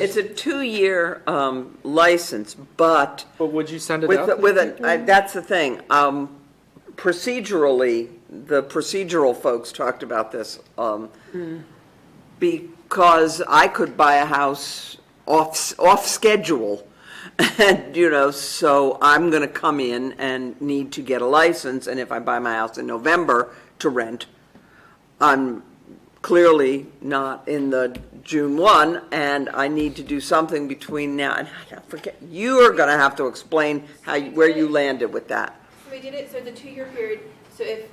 It's a two-year um, license, but But would you send it with, out? with, a- I- that's the thing. Um, Procedurally, the procedural folks talked about this. um, Because I could buy a house off, off schedule. And, you know, so I'm going to come in and need to get a license. And if I buy my house in November to rent, I'm clearly not in the June 1, and I need to do something between now, and I don't forget, you are going to have to explain how, you- where you landed with that. So we did it, so the two-year period, so if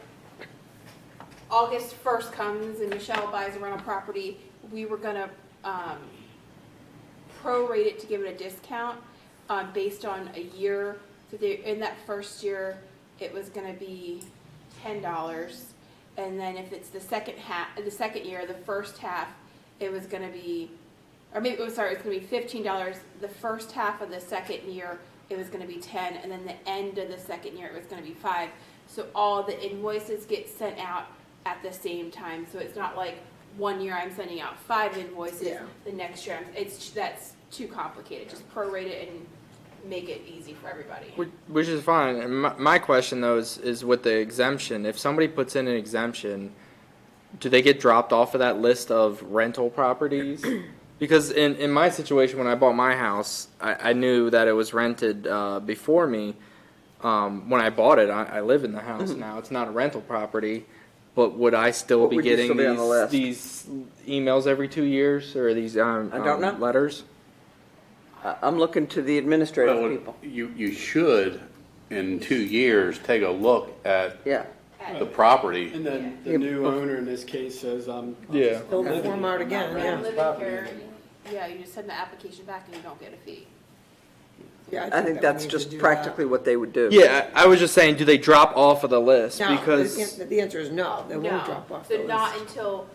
August first comes and Michelle buys a rental property, we were gonna, um, prorate it to give it a discount, um, based on a year. So they, in that first year, it was gonna be ten dollars. And then if it's the second half, the second year, the first half, it was gonna be, or maybe, oh, sorry, it's gonna be fifteen dollars. The first half of the second year, it was gonna be ten, and then the end of the second year, it was gonna be five. So all the invoices get sent out at the same time, so it's not like one year I'm sending out five invoices, Yeah. the next year, I'm- it's, that's too complicated, just prorate it and make it easy for everybody. Which- Which is fine. And my, my question though is, is with the exemption, if somebody puts in an exemption, do they get dropped off of that list of rental properties? Because in, in my situation, when I bought my house, I, I knew that it was rented, uh, before me. Um, when I bought it, I, I live in the house Mm-hmm. now. It's not a rental property. But would I still But be would you getting still be on the these, list? these emails every two years or these, um, I don't um, know. letters? I- I'm looking to the administrative Well, people. You, you should, in two years, take a look at Yeah, the property. And then the new owner in this case says, um. Yeah. I'll Fill just the form out again, I'm yeah. living here, yeah, you just send the application back and you don't get a fee. yeah. I think that we that's need to just do that. practically what they would do. Yeah, I I was just saying, do they drop off of the list? No, the because an- the answer is no, they No, won't drop off the So not list. until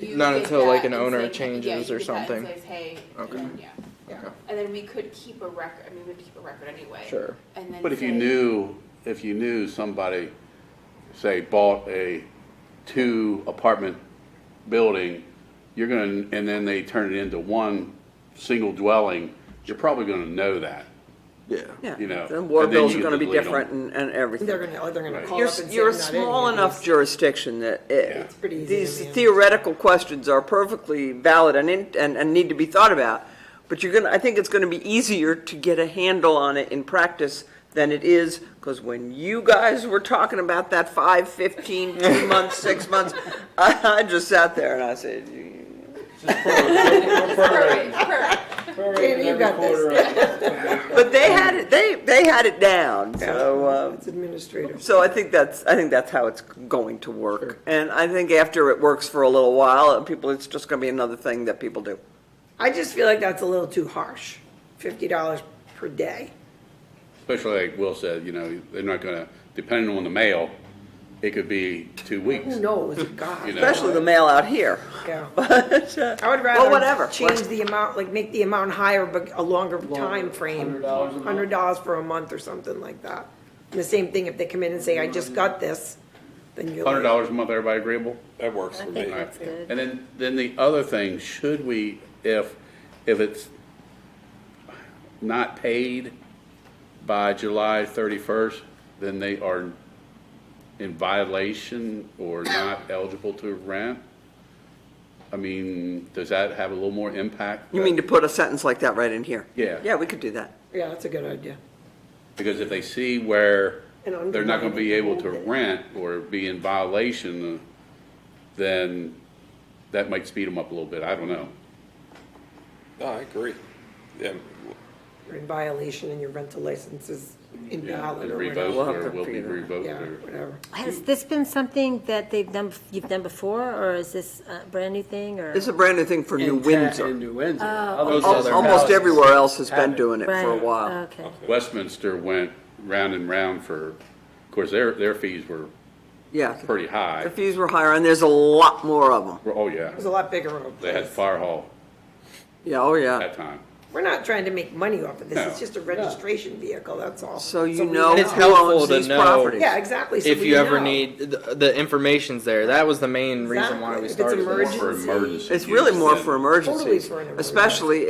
you Not get until, like, that an and owner say, yeah, changes you or get that and something. says, hey, and Okay. then, yeah. Yeah. And then we could keep a record, I mean, we'd keep a record anyway. Sure. And then But if you say- knew, if you knew somebody, say, bought a two apartment building, you're gonna, and then they turn it into one single dwelling, you're probably gonna know that. yeah, Yeah. You know, Then water and then bills you are going to be delete 'em. different and, and everything. They're gonna, oh, they're gonna Right. call You're, up and say, you're a "I'm not in small here." enough jurisdiction that it, It's pretty easy these to manage. theoretical questions are perfectly valid and, in- and, and need to be thought about. But you're gonna, I think it's gonna be easier to get a handle on it in practice than it is, because when you guys were talking about that five, fifteen, two months, six months, I, I just sat there and I said, "You- Prorate, prorate. Danny, you got this. but they had it, they, they had it down, so, uh, It's administrator. So I think that's, I think that's how it's going to work. And I think after it works for a little while, uh, people, it's just gonna be another thing that people do. I just feel like that's a little too harsh, fifty dollars per day. Especially like Will said, you know, they're not gonna, depending on the mail, it could be two weeks. Who knows, God. You know. Especially the mail out here. Yeah. But, uh, I would Well, whatever. rather change the amount, like make the amount higher, but a longer time frame. $100 a month. Hundred dollars for a month or something like that. And the same thing, if they come in and say, I just got this, then you're Hundred like, dollars a month, everybody agreeable? That works for me. think that's good. And then, then the other thing, should we, if, if it's not paid by July thirty-first, then they are in violation or not eligible to rent? I mean, does that have a little more impact? You mean to put a sentence like that right in here? Yeah. Yeah, we could do that. yeah, that's a good idea. Because if they see where And they're not gonna be able to undermine it. rent or be in violation, uh, then that might speed them up a little bit, I don't know. No, I agree. Yeah, You're in violation and your rental license is Yeah, invalid and or revoked whatever. We'll have or to will be figure that out. revoked Yeah, or. whatever. Has this been something that they've done, you've done before, or is this a brand new thing, or? It's a brand new thing for New In Windsor. New Oh. Windsor. Those Al- other Almost houses. everywhere else has been Haven't. doing it for a Right, uh, while. Oh, Okay. Westminster went round and round for, of course, their, their fees were Yeah. pretty high. The fees were higher and there's a lot more of them. Oh, yeah, It was a lot bigger of a they had place. fire hall Yeah, oh yeah. that time. We're not trying to make money off of this, No. it's just a registration vehicle, that's all. So you we know And it's who owns helpful to these know- properties. Yeah, exactly. so if we you ever know. need the, the information's there. That was the main reason why Exactly. If we it's started. More this. emergency- for emergency It's really use more than- for Totally emergencies, for an emergency. especially